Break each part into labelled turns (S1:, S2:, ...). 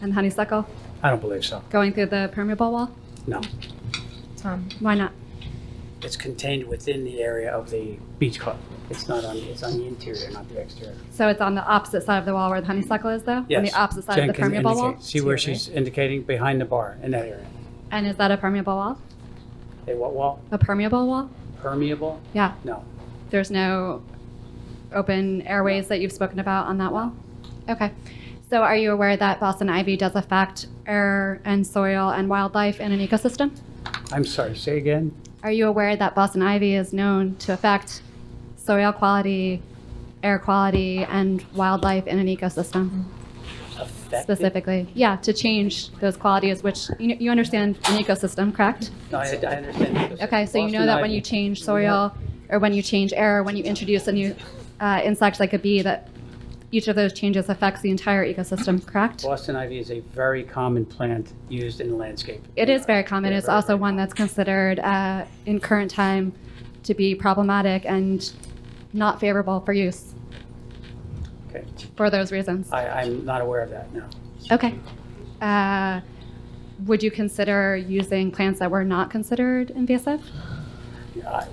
S1: and honeysuckle
S2: I don't believe so.
S1: going through the permeable wall?
S2: No.
S3: Tom,
S1: Why not?
S2: It's contained within the area of the beach club. It's not on, it's on the interior, not the exterior.
S1: So it's on the opposite side of the wall where the honeysuckle is though? On
S2: Yes.
S1: the opposite side
S2: Jen
S1: of the
S2: can
S1: permeable wall?
S2: indicate. See where she's indicating? Behind the bar, in that area.
S1: And is that a permeable wall?
S2: A what wall?
S1: A permeable wall?
S2: Permeable?
S1: Yeah.
S2: No.
S1: There's no open airways that you've spoken about on that wall? Okay. So are you aware that Boston ivy does affect air and soil and wildlife in an ecosystem?
S2: I'm sorry, say again?
S1: Are you aware that Boston ivy is known to affect soil quality, air quality, and wildlife in an ecosystem
S2: Affected?
S1: specifically? Yeah, to change those qualities, which you, you understand an ecosystem, correct?
S2: No, I, I understand.
S1: Okay, so you know that when you change soil or when you change air, when you introduce a new uh, insect like a bee, that each of those changes affects the entire ecosystem, correct?
S2: Boston ivy is a very common plant used in landscape.
S1: It is very common. It's
S2: Very,
S1: also
S2: very
S1: one that's considered uh, in current time to be problematic and not favorable for use
S2: Okay.
S1: for those reasons.
S2: I, I'm not aware of that, no.
S1: Okay. Uh, would you consider using plants that were not considered invasive?
S2: I-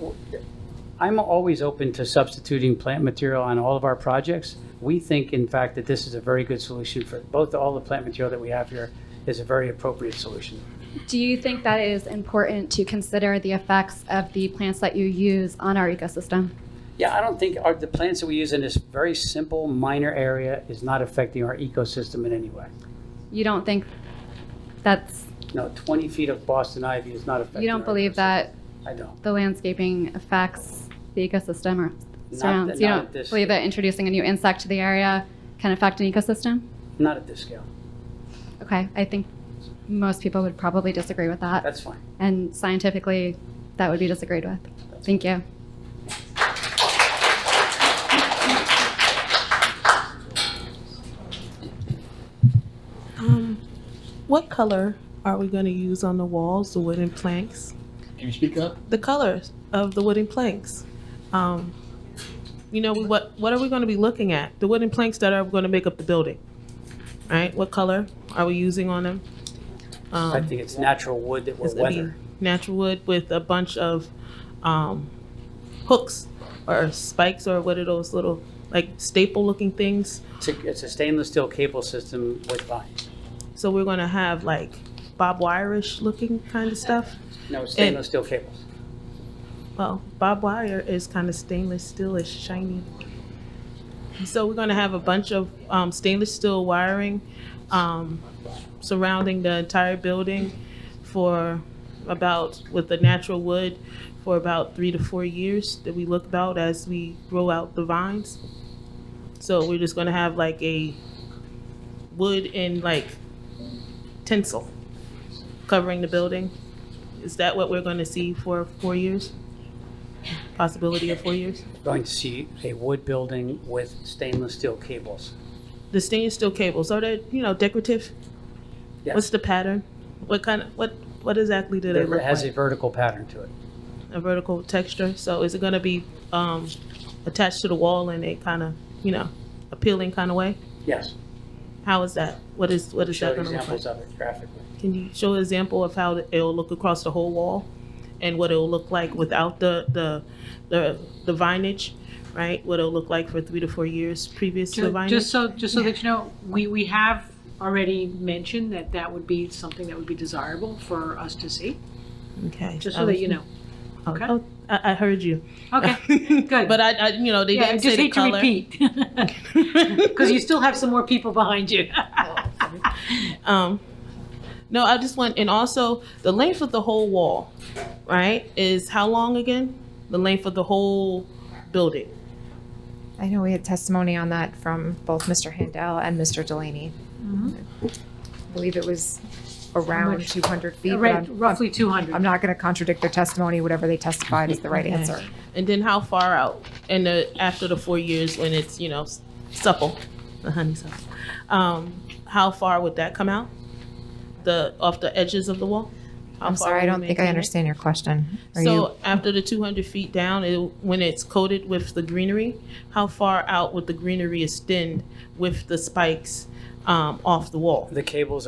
S2: I'm always open to substituting plant material on all of our projects. We think, in fact, that this is a very good solution for both, all the plant material that we have here is a very appropriate solution.
S1: Do you think that it is important to consider the effects of the plants that you use on our ecosystem?
S2: Yeah, I don't think, our- the plants that we use in this very simple, minor area is not affecting our ecosystem in any way.
S1: You don't think that's,
S2: No, 20 feet of Boston ivy is not affecting.
S1: you don't
S2: our
S1: believe
S2: ecosystem.
S1: that
S2: I don't.
S1: the landscaping affects the ecosystem or
S2: Not
S1: surrounds?
S2: that-
S1: You
S2: not
S1: don't
S2: at this
S1: believe that introducing a new insect to the area can affect an ecosystem?
S2: Not at this scale.
S1: Okay, I think most people would probably disagree with that.
S2: That's fine.
S1: And scientifically, that would be disagreed with. Thank you.
S4: Um, what color are we going to use on the walls, the wooden planks?
S5: Can you speak up?
S4: The colors of the wooden planks. Um, you know, we, what what are we going to be looking at? The wooden planks that are going to make up the building, right? What color are we using on them? Um,
S2: I think it's natural wood that
S4: it's
S2: we're
S4: going to be
S2: weathering.
S4: natural wood with a bunch of um, hooks or spikes or what are those little like staple-looking things?
S2: It's a- It's a stainless steel cable system with vines.
S4: So we're going to have like barbed wire-ish looking kind of stuff.
S2: No, stainless steel cables.
S4: Well, barbed wire is kind of stainless steel, it's shiny. So we're gonna have a bunch of um, stainless steel wiring um, surrounding the entire building for about, with the natural wood, for about three to four years that we look about as we grow out the vines. So we're just gonna have like a wood and like tinsel covering the building. Is that what we're gonna see for four years? possibility of four years.
S2: going to see a wood building with stainless steel cables.
S4: The stainless steel cables are they, you know, decorative?
S2: Yes.
S4: What's the pattern? What kind of what what exactly do they
S2: It
S4: look
S2: has a
S4: like?
S2: vertical pattern to it.
S4: A vertical texture. So is it going to be um, attached to the wall in a kind of you know appealing kind of way?
S2: Yes.
S4: How is that? What is what is
S2: Show
S4: that going to look like?
S2: examples of it graphically.
S4: Can you show an example of how it'll look across the whole wall and what it'll look like without the, the, the, the vinage, right? What it'll look like for three to four years previous to the
S6: Ju-
S4: vinage?
S6: Just so, just so that you know, we, we have already mentioned that that would be something that would be desirable for us to see,
S4: Okay.
S6: just
S4: I
S6: so that
S4: was-
S6: you know.
S4: oh,
S6: okay?
S4: oh, I, I heard you.
S6: Okay, good.
S4: But I, I, you know, they
S6: Yeah, I
S4: didn't say
S6: just
S4: the
S6: hate to
S4: color.
S6: repeat, because you still have some more people behind you.
S4: Um, no, I just want, and also the length of the whole wall, right, is how long again? The length of the whole building.
S3: I know we had testimony on that from both Mr. Handel and Mr. Delaney. I believe it was around
S6: much?
S3: 200 feet. but
S6: Right,
S3: I'm-
S6: roughly two
S3: I'm
S6: hundred.
S3: not going to contradict their testimony. Whatever they testified is the right
S4: Okay.
S3: answer.
S4: And then how far out? And the, after the four years when it's, you know, s- supple, the honeysuckle, um, how far would that come out? The, off the edges of the wall? How
S3: I'm
S4: far
S3: sorry, I
S4: would
S3: don't
S4: we
S3: think I
S4: maintain it?
S3: understand your question. Are you,
S4: So after the 200 feet down, it, when it's coated with the greenery, how far out would the greenery extend with the spikes
S7: um, off the wall.
S4: The cables